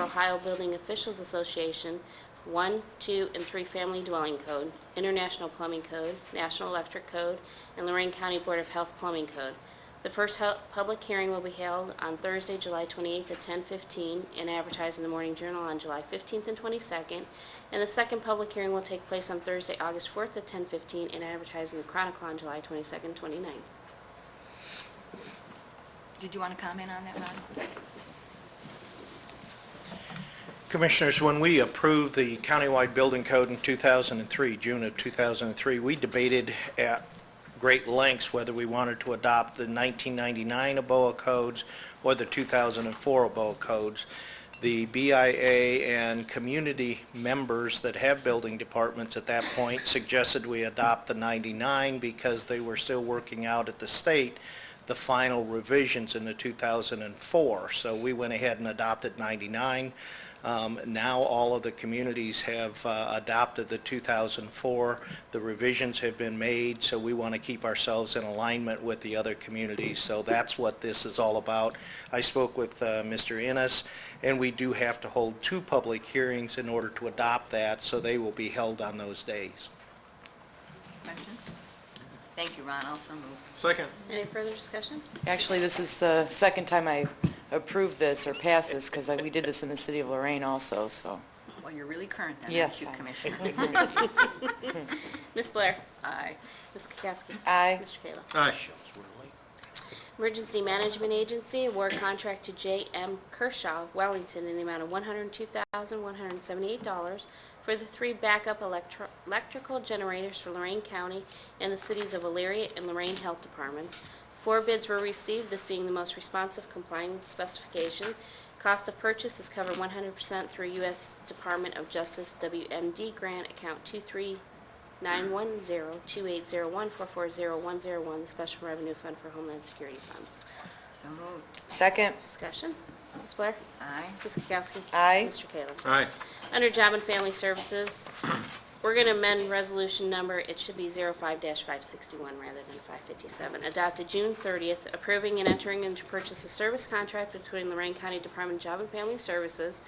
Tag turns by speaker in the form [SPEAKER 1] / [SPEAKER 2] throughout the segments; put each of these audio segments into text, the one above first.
[SPEAKER 1] Ohio Building Officials Association, 1, 2, and 3 Family Dwelling Code, International Plumbing Code, National Electric Code, and Lorraine County Board of Health Plumbing Code. The first hel- public hearing will be held on Thursday, July 28th at 10:15 and advertised in the Morning Journal on July 15th and 22nd. And the second public hearing will take place on Thursday, August 4th at 10:15 and advertised in the Chronicle on July 22nd, 29th.
[SPEAKER 2] Did you want to comment on that, Ron?
[SPEAKER 3] Commissioners, when we approved the countywide building code in 2003, June of 2003, we debated at great lengths whether we wanted to adopt the 1999 ABOA codes or the 2004 ABOA codes. The BIA and community members that have building departments at that point suggested we adopt the 99 because they were still working out at the state the final revisions in the 2004. So we went ahead and adopted 99. Um, Now, all of the communities have uh, adopted the 2004. The revisions have been made, so we want to keep ourselves in alignment with the other communities. So that's what this is all about. I spoke with uh, Mr. Innes, and we do have to hold two public hearings in order to adopt that, so they will be held on those days.
[SPEAKER 2] Question? Thank you, Ron, also moved.
[SPEAKER 4] Second.
[SPEAKER 1] Any further discussion?
[SPEAKER 5] Actually, this is the second time I approved this or passed this, because we did this in the city of Lorraine also, so.
[SPEAKER 2] Well, you're really current then, aren't
[SPEAKER 5] Yes.
[SPEAKER 2] you, Commissioner?
[SPEAKER 1] Ms. Blair?
[SPEAKER 2] Aye.
[SPEAKER 1] Ms. Kukowski?
[SPEAKER 5] Aye.
[SPEAKER 1] Mr. Kayla?
[SPEAKER 4] Aye.
[SPEAKER 1] Emergency Management Agency, award contract to J.M. Kershaw, Wellington, in the amount of $102,178 for the three backup electro- electrical generators for Lorraine County and the cities of Elyria and Lorraine Health Departments. Four bids were received, this being the most responsive complying with specification. Cost of purchase is covered 100% through U.S. Department of Justice WMD grant, account 23 910-2801-440101, the Special Revenue Fund for Homeland Security Funds.
[SPEAKER 2] So moved.
[SPEAKER 5] Second,
[SPEAKER 1] Discussion. Ms. Blair?
[SPEAKER 2] Aye.
[SPEAKER 1] Ms. Kukowski?
[SPEAKER 5] Aye.
[SPEAKER 1] Mr. Kayla?
[SPEAKER 4] Aye.
[SPEAKER 1] Under Job and Family Services, we're going to amend resolution number, it should be 05-561 rather than 557, adopted June 30th, approving and entering into purchase a service contract between Lorraine County Department of Job and Family Services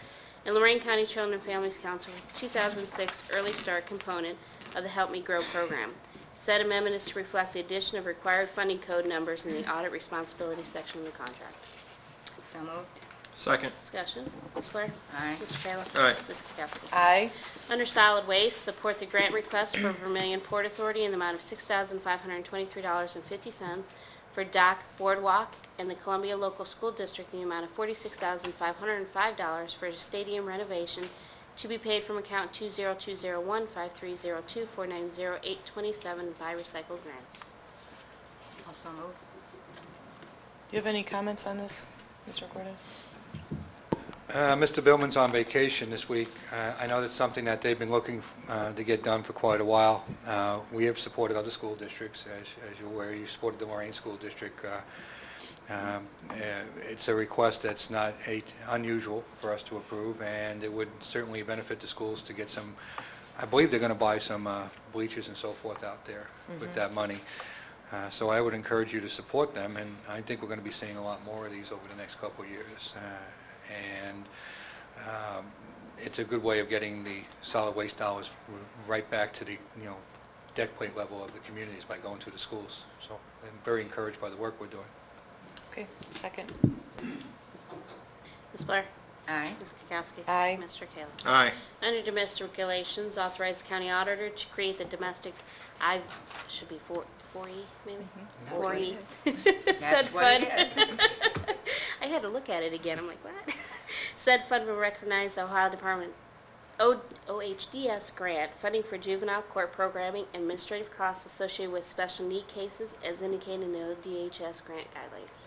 [SPEAKER 1] and Lorraine County Children and Families Council for 2006 Early Start component of the Help Me Grow program. Said amendment is to reflect the addition of required funding code numbers in the audit responsibility section of the contract.
[SPEAKER 2] So moved.
[SPEAKER 4] Second.
[SPEAKER 1] Discussion, Ms. Blair?
[SPEAKER 2] Aye.
[SPEAKER 1] Mr. Kayla?
[SPEAKER 4] Aye.
[SPEAKER 1] Ms. Kukowski?
[SPEAKER 5] aye.
[SPEAKER 1] Under Solid Waste, support the grant request for Vermillion Port Authority in the amount of $6,523.50 for dock boardwalk and the Columbia Local School District in the amount of $46,505 for stadium renovation to be paid from account 20201-5302-490827 by recycled grants.
[SPEAKER 2] Also moved.
[SPEAKER 5] Do you have any comments on this, Mr. Cortez?
[SPEAKER 6] Uh, Mr. Billman's on vacation this week. Uh, I know that's something that they've been looking uh, to get done for quite a while. Uh, We have supported other school districts, as as you're aware. You supported the Lorraine School District. Uh, um, uh, It's a request that's not a- unusual for us to approve, and it would certainly benefit the schools to get some, I believe they're going to buy some uh, bleachers and so forth out there with that money. Uh, So I would encourage you to support them, and I think we're going to be seeing a lot more of these over the next couple of years. Uh, And um, it's a good way of getting the solid waste dollars r- right back to the, you know, deck plate level of the communities by going to the schools. So I'm very encouraged by the work we're doing.
[SPEAKER 5] Okay, second.
[SPEAKER 1] Ms. Blair?
[SPEAKER 2] Aye.
[SPEAKER 1] Ms. Kukowski?
[SPEAKER 5] Aye.
[SPEAKER 1] Mr. Kayla?
[SPEAKER 4] Aye.
[SPEAKER 1] Under domestic regulations, authorize county auditor to create the domestic, I, should be four, four E, maybe? Four E. Said
[SPEAKER 2] That's what
[SPEAKER 1] fund.
[SPEAKER 2] it is.
[SPEAKER 1] I had to look at it again, I'm like, what? Said fund will recognize Ohio Department, O- OHDS grant, funding for juvenile court programming, and administrative costs associated with special need cases as indicated in the ODHS grant guidelines.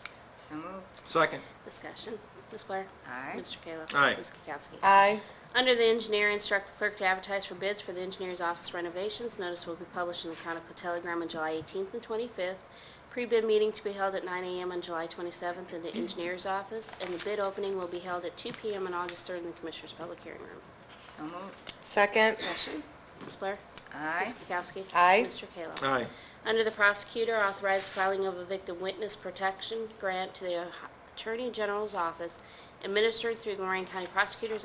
[SPEAKER 2] So moved.
[SPEAKER 4] Second.
[SPEAKER 1] Discussion, Ms. Blair?
[SPEAKER 2] Aye.
[SPEAKER 1] Mr. Kayla?
[SPEAKER 4] Aye.
[SPEAKER 1] Ms. Kukowski?
[SPEAKER 5] Aye.
[SPEAKER 1] Under the engineer, instruct the clerk to advertise for bids for the engineer's office renovations. Notice will be published in the Chronicle Telegram on July 18th and 25th. Pre-bid meeting to be held at 9 a.m. on July 27th in the engineer's office, and the bid opening will be held at 2 p.m. on August 3rd in the Commissioners' Public Hearing Room.
[SPEAKER 2] So moved.
[SPEAKER 5] Second,
[SPEAKER 1] Discussion? Ms. Blair?
[SPEAKER 2] Aye.
[SPEAKER 1] Ms. Kukowski?
[SPEAKER 5] Aye.
[SPEAKER 1] Mr. Kayla?
[SPEAKER 4] Aye.
[SPEAKER 1] Under the prosecutor, authorize filing of a victim witness protection grant to the Attorney General's office administered through Lorraine County Prosecutor's